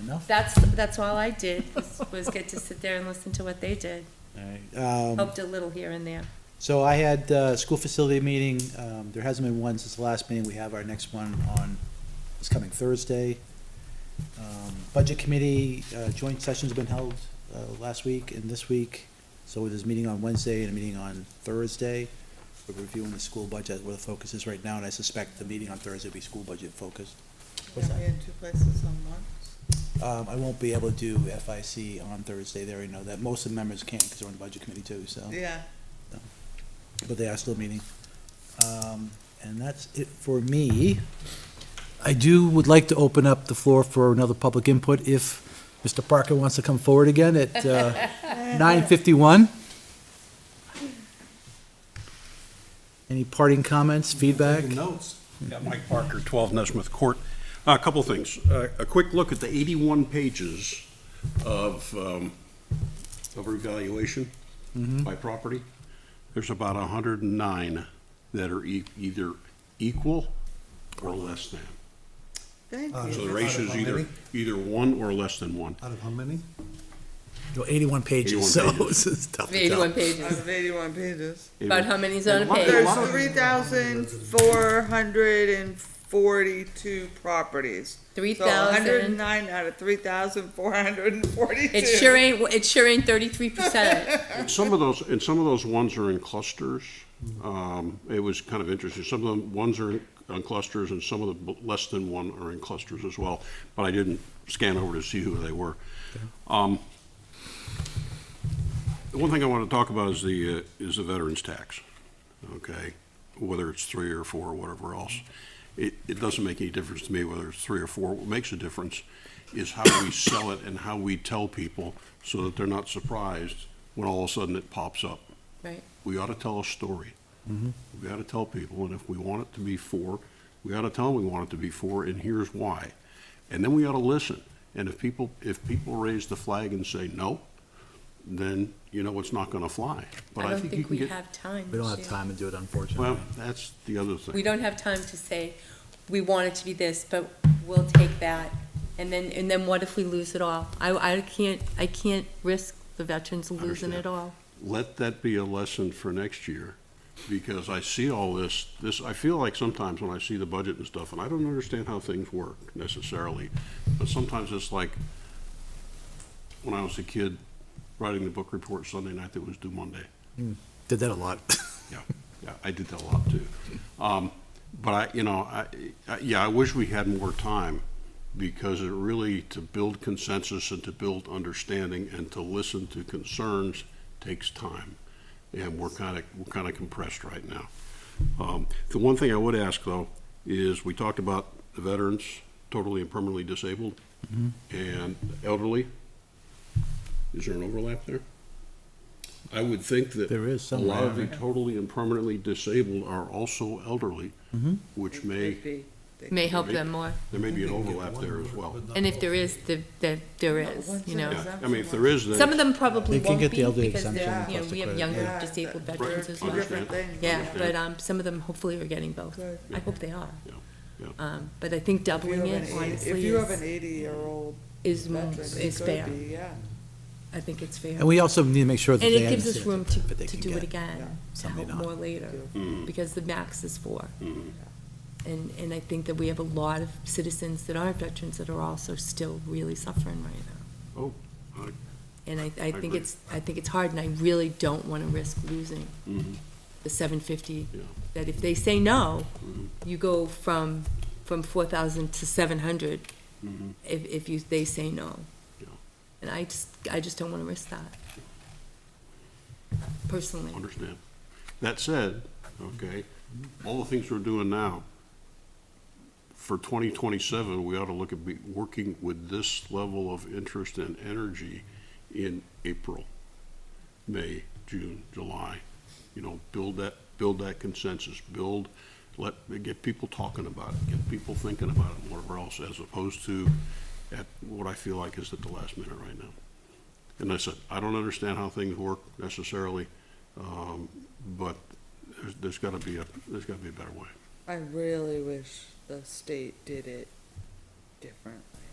enough. That's, that's all I did, was- was get to sit there and listen to what they did. Um, Helped a little here and there. So I had uh school facility meeting, um, there hasn't been one since the last meeting, we have our next one on, this coming Thursday. Um, Budget committee, uh, joint sessions have been held, uh, last week and this week, so there's a meeting on Wednesday and a meeting on Thursday. We're reviewing the school budget, where the focus is right now, and I suspect the meeting on Thursday will be school budget focused. What's Can we in two places on one? Um, I won't be able to do FIC on Thursday, they already know that, most of the members can't, because they're on the budget committee too, so. Yeah, but they are still meeting. Um, And that's it for me. I do would like to open up the floor for another public input if Mr. Parker wants to come forward again at uh, 9:51. Any parting comments, feedback? Taking notes. Yeah, Mike Parker, 12 Nesmith Court. Uh, A couple of things. Uh, A quick look at the 81 pages of, um, of revaluation by property. There's about 109 that are e- either equal or less than. thank So you. the ratio is either, either one or less than one. Out of how many? Well, 81 pages, 81 so pages. it's tough to tell. Eighty-one Out pages. of eighty-one pages. About how many's on a page? There's three thousand four hundred and forty-two properties. Three So hundred thousand. and nine out of three thousand four hundred and forty-two. It sure ain't, it sure ain't thirty-three percent. And some of those, and some of those ones are in clusters. Um, it was kind of interesting. Some of the ones are in, on clusters, and some of the b- less than one are in clusters as well. But I didn't scan over to see who they were. Um, the one thing I want to talk about is the uh, is the veterans tax. Okay, whether it's three or four or whatever else, it it doesn't make any difference to me whether it's three or four. What makes a difference is how we sell it and how we tell people so that they're not surprised when all of a sudden it pops up. Right. We ought to tell a story. We ought to tell people, and if we want it to be four, we ought to tell them we want it to be four, and here's why. And then we ought to listen. And if people, if people raise the flag and say no, then, you know, it's not gonna fly. But I don't you think can we get- have time. We don't to- have time to do it, Well, unfortunately. that's the other thing. We don't have time to say, we want it to be this, but we'll take that. And then, and then what if we lose it all? I, I can't, I can't risk the veterans losing Understand. it all. let that be a lesson for next year, because I see all this, this, I feel like sometimes when I see the budget and stuff, and I don't understand how things work necessarily, but sometimes it's like, when I was a kid, writing the book report Sunday night that was due Monday. Did that a lot. Yeah, yeah, I did that a lot too. Um, but I, you know, I, I, yeah, I wish we had more time because it really, to build consensus and to build understanding and to listen to concerns takes time. And we're kind of, we're kind of compressed right now. Um, the one thing I would ask though is we talked about the veterans, totally and permanently disabled Mm-hmm. and elderly. Is there an overlap there? I would think that. There is A lot somewhere, of the totally and permanently disabled are also elderly, which may, Could be. They May help Right. them more. there may be an overlap there as well. And if there is, the, the, there is, one's you in know. the Yeah, I mean, if there is, then. Some of them probably You can won't be get the elderly because they're, exemption you know, plus the we have credit. younger Yeah, disabled that- veterans Right, as well. understand. Different things. Yeah, Understand. but, um, some of them hopefully are getting both. Good. I hope they are. Yeah, yeah. Um, but I think If you doubling have an it eighty- if honestly you have an is, eighty-year-old is, more- veteran, it is could fair. be, yeah. I think it's fair. And we also need to make sure that And they it gives us room understand. to, but they to can do it get- yeah, again, to some may help not. more later, hmm. Mm-hmm. because the max is four. Mhm. And, and I think that we have a lot of citizens that aren't veterans that are also still really suffering right now. Oh, I- And I, I think agree. it's, I think it's hard, and I really don't wanna risk losing mhm, the seven fifty. Yeah. That if they say no, mhm, you go from, from four thousand to seven hundred, mhm. if, if you, they say no. Yeah. And I just, I just don't wanna risk that. Personally. Understand. That said, okay, all the things we're doing now, for twenty twenty-seven, we ought to look at be, working with this level of interest and energy in April, May, June, July. You know, build that, build that consensus, build, let, get people talking about it, get people thinking about it, and whatever else, as opposed to at what I feel like is at the last minute right now. And I said, I don't understand how things work necessarily, um, but there's, there's gotta be a, there's gotta be a better way. I really wish the state did it differently.